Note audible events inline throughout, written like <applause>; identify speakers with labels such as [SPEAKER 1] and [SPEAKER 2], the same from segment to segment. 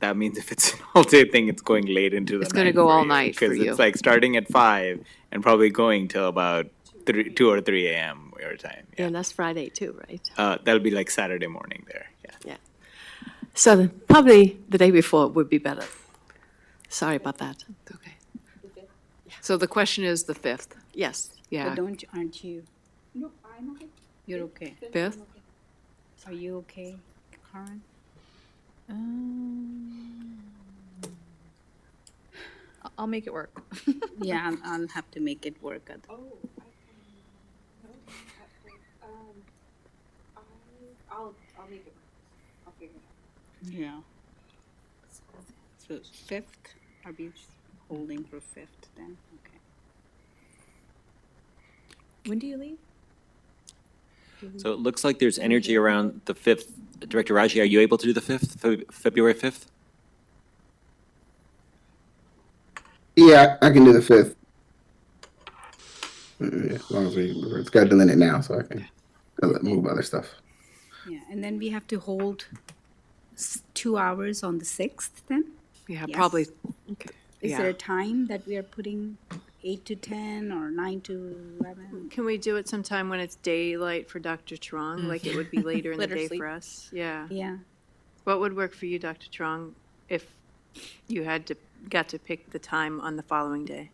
[SPEAKER 1] that means if it's an <laughs> all-day thing, it's going late into the night.
[SPEAKER 2] It's gonna go
[SPEAKER 1] for
[SPEAKER 2] all
[SPEAKER 1] you,
[SPEAKER 2] night for
[SPEAKER 1] Because
[SPEAKER 2] you.
[SPEAKER 1] it's like starting at five and probably going till about three, two or three AM your time. Yeah.
[SPEAKER 3] And that's Friday too, right?
[SPEAKER 1] Uh, that'll be like Saturday morning there, yeah.
[SPEAKER 3] Yeah. So then probably the day before would be better. Sorry about that.
[SPEAKER 2] Okay. So the question is the 5th.
[SPEAKER 3] Yes.
[SPEAKER 2] Yeah,
[SPEAKER 4] But don't, aren't you,
[SPEAKER 5] Nope, I'm okay.
[SPEAKER 4] you're okay?
[SPEAKER 2] 5th?
[SPEAKER 4] Are you okay, Karen?
[SPEAKER 6] I'll make it work.
[SPEAKER 4] Yeah, I'll, I'll have to make it work. At,
[SPEAKER 5] Oh, I can, no, I- um, I, I'll, I'll make it, work. I'll figure it out.
[SPEAKER 4] yeah. So fifth, are we just holding for fifth then? Okay.
[SPEAKER 6] When do you leave?
[SPEAKER 7] So it looks like there's energy around the 5th. Director Raji, are you able to do the 5th, Fe- February 5th?
[SPEAKER 8] Yeah, I can do the fifth. Yeah, As long as we, it's got to delete it now, so I can move other stuff.
[SPEAKER 4] Yeah, and then we have to hold s- two hours on the sixth then?
[SPEAKER 2] Yeah,
[SPEAKER 4] Yes.
[SPEAKER 2] probably,
[SPEAKER 4] Is there
[SPEAKER 2] yeah.
[SPEAKER 4] a time that we are putting eight to ten or nine to eleven?
[SPEAKER 3] Can we do it sometime when it's daylight for Dr. Trong? Like it would
[SPEAKER 2] Mm-hmm.
[SPEAKER 3] be later in the day for us? Yeah.
[SPEAKER 4] Yeah,
[SPEAKER 3] What would work for you, Dr. Trong, if you had to, got to pick the time on the following day?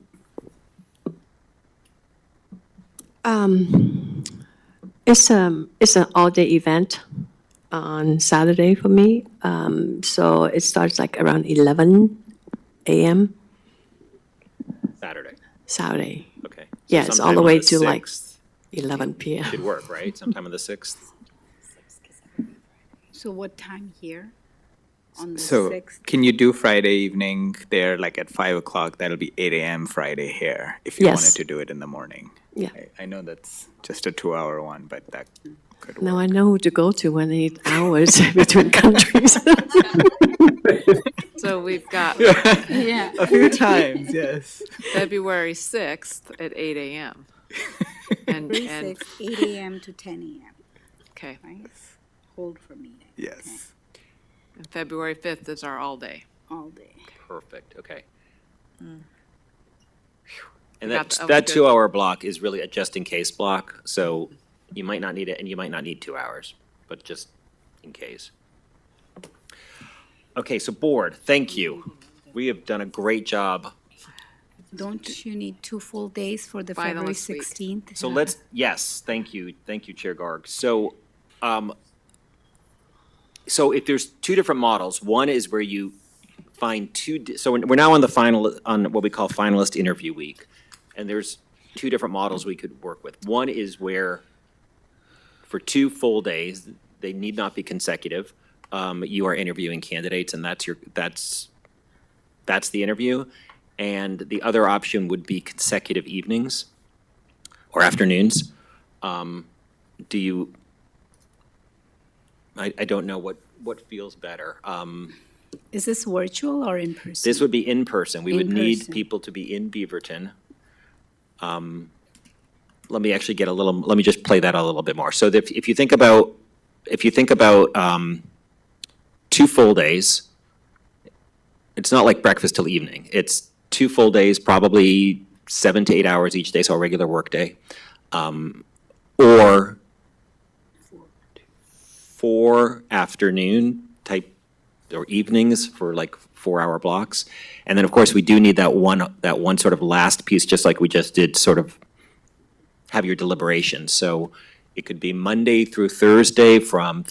[SPEAKER 5] Um, it's um, it's an all-day event on Saturday for me. Um, so it starts like around eleven a.m.
[SPEAKER 7] Saturday.
[SPEAKER 5] Saturday.
[SPEAKER 7] Okay. So
[SPEAKER 5] Yeah, it's all
[SPEAKER 7] sometime
[SPEAKER 5] the
[SPEAKER 7] on
[SPEAKER 5] way to like
[SPEAKER 7] 6th
[SPEAKER 5] eleven p.m.
[SPEAKER 7] Could work, right? Sometime on the 6th?
[SPEAKER 4] so what time here? On the
[SPEAKER 1] So
[SPEAKER 4] sixth?
[SPEAKER 1] can you do Friday evening there, like at five o'clock? That'll be eight AM Friday here, if you wanted
[SPEAKER 5] Yes.
[SPEAKER 1] to do it in the morning.
[SPEAKER 5] Yeah.
[SPEAKER 1] I, I know that's just a two-hour one, but that could
[SPEAKER 5] Now
[SPEAKER 1] work.
[SPEAKER 5] I know who to go to when I need hours <laughs> between countries. <laughs>
[SPEAKER 2] So we've got
[SPEAKER 4] <laughs> Yeah.
[SPEAKER 1] A <laughs> few times, yes.
[SPEAKER 2] February 6th at 8 AM.
[SPEAKER 4] <laughs>
[SPEAKER 2] And,
[SPEAKER 7] <laughs>
[SPEAKER 4] Three,
[SPEAKER 2] and,
[SPEAKER 4] six, eight AM to ten AM,
[SPEAKER 2] okay,
[SPEAKER 4] right? Hold for me then,
[SPEAKER 1] Yes.
[SPEAKER 2] and February 5th is our all-day.
[SPEAKER 4] all day.
[SPEAKER 7] Perfect, okay. And
[SPEAKER 2] Mm. We got
[SPEAKER 7] that,
[SPEAKER 2] the- oh,
[SPEAKER 7] that
[SPEAKER 2] good.
[SPEAKER 7] two-hour block is really a just-in-case block, so you might not need it, and you might not need two hours, but just in case. Okay, so board, thank you. We have done a great job.
[SPEAKER 4] Don't you need two full days for the February
[SPEAKER 2] Finalist week.
[SPEAKER 4] sixteenth?
[SPEAKER 7] So let's, yes, thank you, thank you, Chair Garg. So, um, so if there's two different models, one is where you find two, di- so we're we're now on the final, on what we call finalist interview week. And there's two different models we could work with. One is where for two full days, they need not be consecutive. Um, you are interviewing candidates and that's your, that's, that's the interview. And the other option would be consecutive evenings or afternoons. Um, do you, I, I don't know what, what feels better. Um,
[SPEAKER 4] Is this virtual or in person?
[SPEAKER 7] this would be in person. We would
[SPEAKER 4] In
[SPEAKER 7] need
[SPEAKER 4] person.
[SPEAKER 7] people to be in Beaverton. Um, let me actually get a little, let me just play that out a little bit more. So if, if you think about, if you think about, um, two full days, it's not like breakfast till evening. It's two full days, probably seven to eight hours each day, so a regular workday. Um, or four afternoon type or evenings for like four hour blocks. And then, of course, we do need that one, that one sort of last piece, just like we just did, sort of have your deliberations. So it could be Monday through Thursday from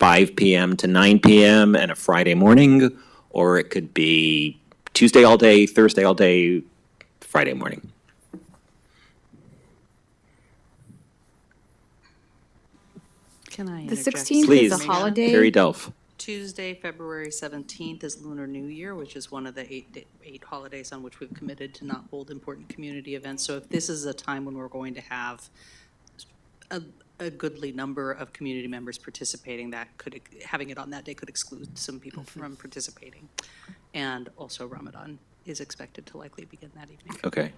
[SPEAKER 7] five PM to nine PM and a Friday morning, or it could be Tuesday all day, Thursday all day, Friday morning.
[SPEAKER 9] Can I
[SPEAKER 6] The
[SPEAKER 9] interject?
[SPEAKER 6] 16th
[SPEAKER 7] Please,
[SPEAKER 6] is a holiday.
[SPEAKER 7] Carrie Delph.
[SPEAKER 9] Tuesday, February 17th is Lunar New Year, which is one of the eight, da- eight holidays on which we've committed to not hold important community events. So if this is a time when we're going to have a, a goodly number of community members participating, that could, ex- having it on that day could exclude some people from participating. And also Ramadan is expected to likely begin that evening.
[SPEAKER 7] Okay.